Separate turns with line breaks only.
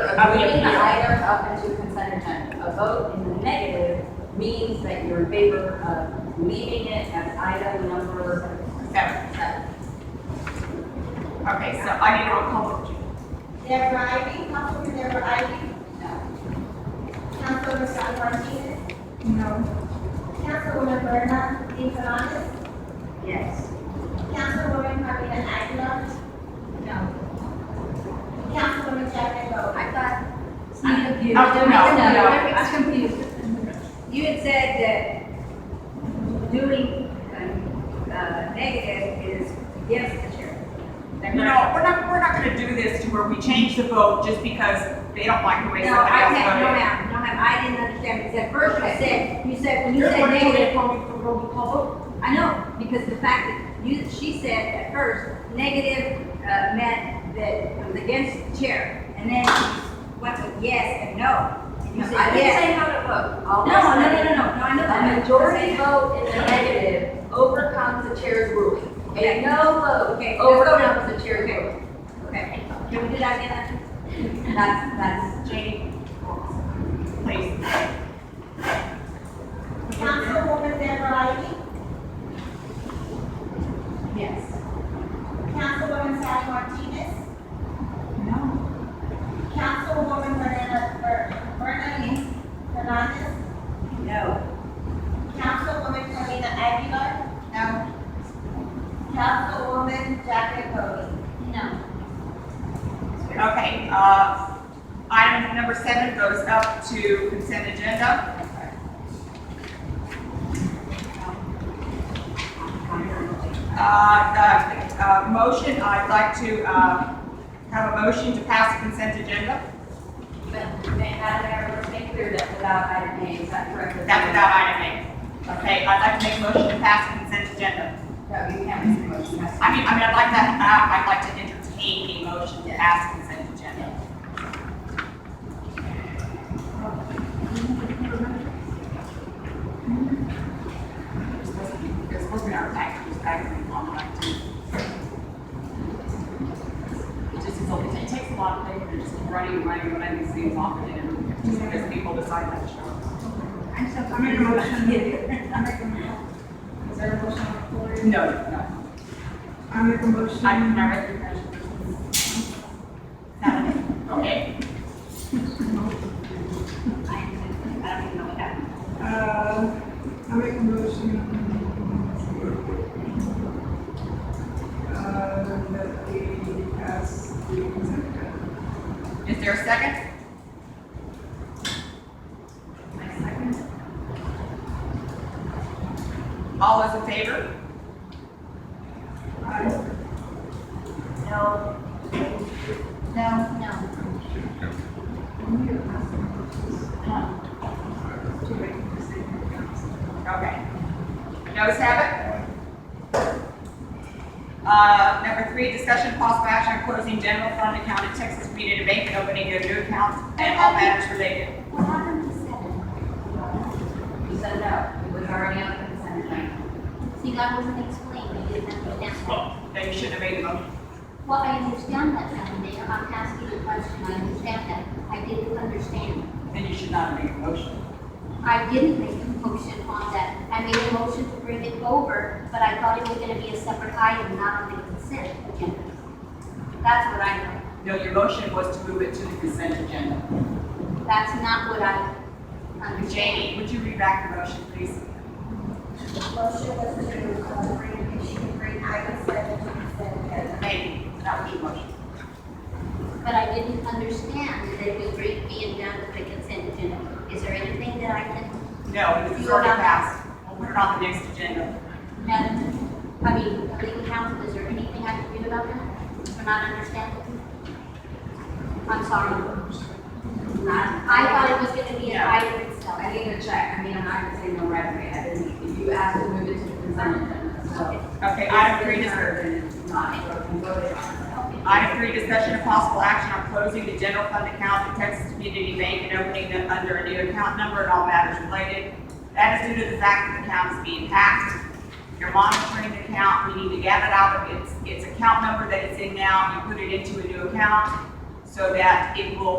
I would
Bringing the
appeal.
items up into consent agenda. A vote in the negative means that you're in favor of leaving it as item number
Seven.
seven.
Okay, so I need a roll call vote, Judy.
Deborah Ivy, Councilmember Ivy,
No.
Councilmember San Martinez. No. Councilwoman Berna Inferantes,
Yes.
Councilwoman Carmina Aguilar. No. Councilwoman Jacqueline Rose.
I thought,
I'm confused.
Oh, no, no.
I'm confused. You had said that doing, um, uh, negative is against the chair. Is that
No,
correct?
we're not, we're not gonna do this to where we change the vote just because they don't like the way
No, I can't,
somebody
no,
else voted.
ma'am, no, ma'am, I didn't understand, because at first you said, you said, when you
You're
said
going to do
negative, roll call vote. I know, because the fact that you, she said at first, negative, uh, meant that it was against the chair, and then she went with yes and no, and you said
I didn't
yes.
say how to vote.
No,
All
no,
I
no,
said-
no, no, no, I know
A
that.
majority vote in the negative overcomes the chair's ruling. A
Okay.
no vote
Okay, let's go now.
overcomes the chair's
Okay.
ruling.
Okay, can we do that again? That's, that's
Jane, please.
Councilwoman Deborah Ivy,
Yes.
Councilwoman San Martinez,
No.
Councilwoman Berna, Ber- Berna Inferantes,
no.
Councilwoman Carmina Aguilar. No. Councilwoman Jacqueline Rose.
No.
Okay, uh, item number seven goes up to consent agenda. Uh, the, uh, motion, I'd like to, uh, have a motion to pass the consent agenda.
But may I, Mayor, let's make clear that without item A, is that correct?
That's without item A. Okay, I'd like to make a motion to pass the consent agenda.
No, you can't make a motion. That's-
I mean, I mean, I'd like to, uh, I'd like to entertain a motion to pass consent agenda. It's supposed to be our package, package on like two. It just is, it takes a lot of things, just running, running, running these things off and then just because people decide that show.
I'm so. I'm making a motion. I'm making a motion.
Is there a motion on the floor?
No, no.
I make a motion.
I can never recognize Okay.
I don't even know what happened.
Uh, I make a motion. Uh, that we pass the consent agenda.
Is there a second? All those in favor?
Aye.
No.
To make the consent.
Okay. Notice have it. Uh, number three, discussion possible action on closing general fund account at Texas Community Bank and opening a new account and all matters related.
What happened to seven? You said no, it was already on the consent agenda.
See, that wasn't explained, we didn't understand that.
Well, then you shouldn't have made the motion.
Well, I understand that, Madam Mayor, I'm asking a question, I understand that, I didn't understand.
Then you should not have made the motion.
I didn't make a motion on that, I made a motion to bring it over, but I thought it was gonna be a separate item, not on the consent agenda. That's what I know,
No, your motion was to move it to the consent agenda.
that's not what I understand.
Jamie, would you read back the motion, please?
Motion was to uh, bring, issue, bring item seven to consent agenda.
Maybe, that was your motion.
But I didn't understand that it was bring- being done with the consent agenda. Is there anything that I can,
No, this is already passed. We'll put it on the next agenda.
Madam, I mean, legal counsel, is there anything I can do about that? For not understanding? I'm sorry.
Not,
I thought it was gonna be an
Yeah.
item itself.
I need to check, I mean, I'm not gonna say no right away, I didn't, you asked to move it to the consent agenda, so.
Okay, item three, dis-
is not, you voted on it.
item three, discussion of possible action on closing the general fund account at Texas Community Bank and opening them under a new account number and all matters related. That is due to the fact that the account is being hacked. You're monitoring the account, we need to get it out of its, its account number that it's in now and put it into a new account so that it will